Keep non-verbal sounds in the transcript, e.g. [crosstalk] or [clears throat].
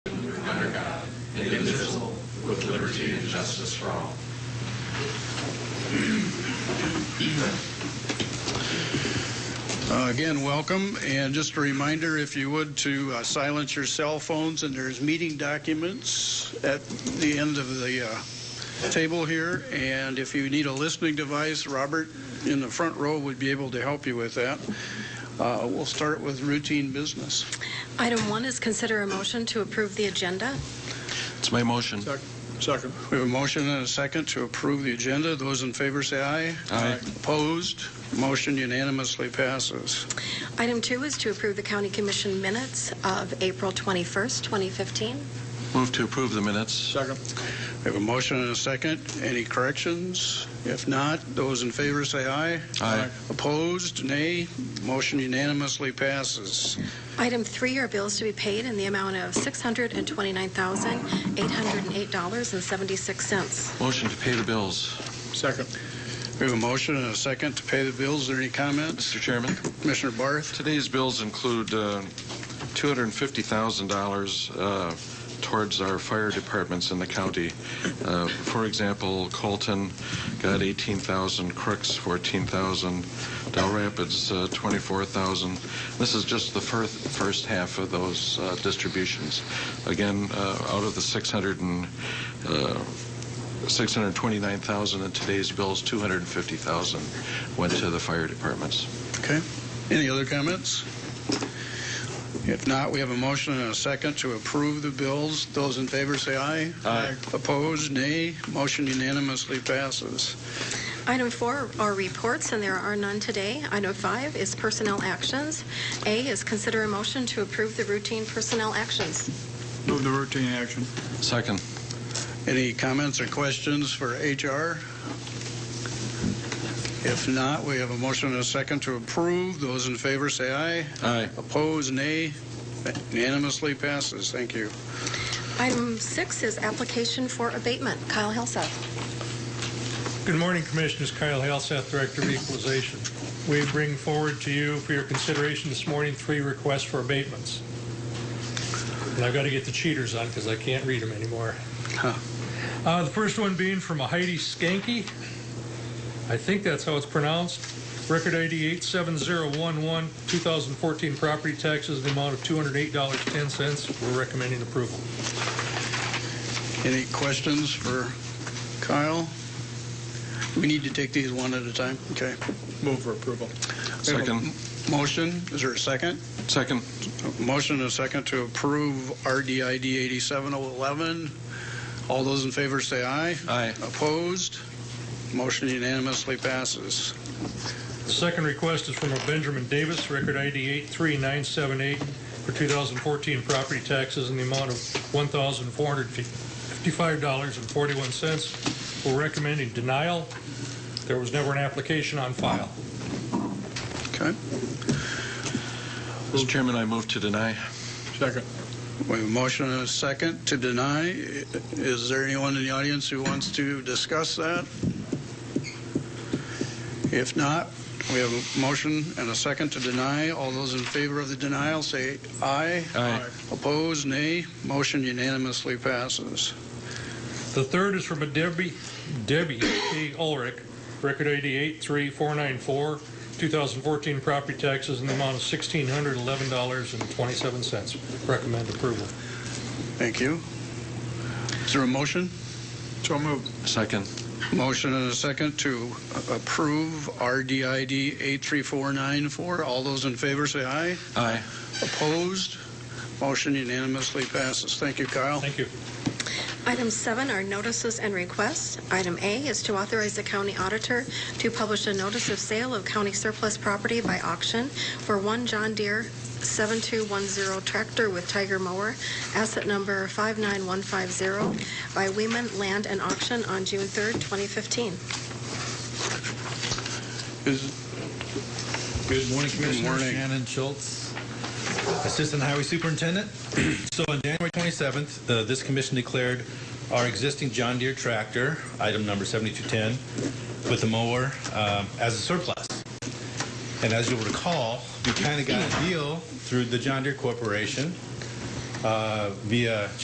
indivisible, with liberty and justice for all. Uh, Again, welcome, and just a reminder, if you would, to uh, silence your cell phones, and there's meeting documents at the end of the uh, table here, and if you need a listening device, Robert in the front row would be able to help you with that. Uh, We'll start with routine business. Item one is consider a motion to approve the agenda. It's my motion. Second. We have a motion and a second to approve the agenda. Those in favor say aye. Aye. Opposed? Motion unanimously passes. Item two is to approve the county commission minutes of April 21st, 2015. Move to approve the minutes. Second. We have a motion and a second. Any corrections? If not, those in favor say aye. Aye. Opposed? Nay. Motion unanimously passes. Item three are bills to be paid in the amount of $629,808.76. Motion to pay the bills. Second. We have a motion and a second to pay the bills. Are there any comments? Mr. Chairman, Commissioner Barth? today's bills include uh, $250,000 uh, towards our fire departments in the county. Uh, For example, Colton got 18,000, Crooks 14,000, Del Rapids uh, 24,000. This is just the first, first half of those uh, distributions. Again, uh, out of the 600 and, uh, 629,000 in today's bills, 250,000 went to the fire departments. Okay. Any other comments? If not, we have a motion and a second to approve the bills. Those in favor say aye. Aye. Opposed? Nay. Motion unanimously passes. Item four are reports, and there are none today. Item five is personnel actions. A is consider a motion to approve the routine personnel actions. Move the routine action. Second. Any comments or questions for HR? If not, we have a motion and a second to approve. Those in favor say aye. Aye. Opposed, nay. That Unanimously passes. Thank you. Item six is application for abatement. Kyle Hillseth. Good morning, Commissioners. Kyle Halseth, Director of Equalization. We bring forward to you for your consideration this morning three requests for abatements. And I've got to get the cheaters on because I can't read them anymore. Huh. Uh, The first one being from a Heidi Skanky. I think that's how it's pronounced. Record ID 87011, 2014 property taxes, in the amount of $208.10. We're recommending approval. Any questions for Kyle? We need to take these one at a time. Okay. Move for approval. We have a Second. Motion, is there a second? Second. A Motion and a second to approve RDID 87011. All those in favor say aye. Aye. Opposed? Motion unanimously passes. The second request is from a Benjamin Davis, record ID 83978, for 2014 property taxes in the amount of $1,455.41. We're recommending denial. There was never an application on file. Okay. Mr. Chairman, I move to deny. Second. We have a motion and a second to deny. Is there anyone in the audience who wants to discuss that? If not, we have a motion and a second to deny. All those in favor of the denial say aye. Aye. Opposed, nay. Motion unanimously passes. The third is from a Debbie, Debbie P. Ulrich, record ID 83494, 2014 property taxes in the amount of $1,611.27. Recommend approval. Thank you. Is there a motion? So moved. Second. Motion and a second to approve RDID 83494. All those in favor say aye. Aye. Opposed? Motion unanimously passes. Thank you, Kyle. Thank you. Item seven are notices and requests. Item A is to authorize the county auditor to publish a notice of sale of county surplus property by auction for one John Deere 7210 tractor with Tiger mower, asset number 59150, by Weeman Land and Auction on June 3rd, 2015. Is- Good morning, Commissioner morning. Shannon Schultz, Assistant Highway Superintendent. [clears throat] So on January 27th, uh, this commission declared our existing John Deere tractor, item number 7210, with the mower um, as a surplus. And as you'll recall, we kind of got a deal through the John Deere Corporation uh, via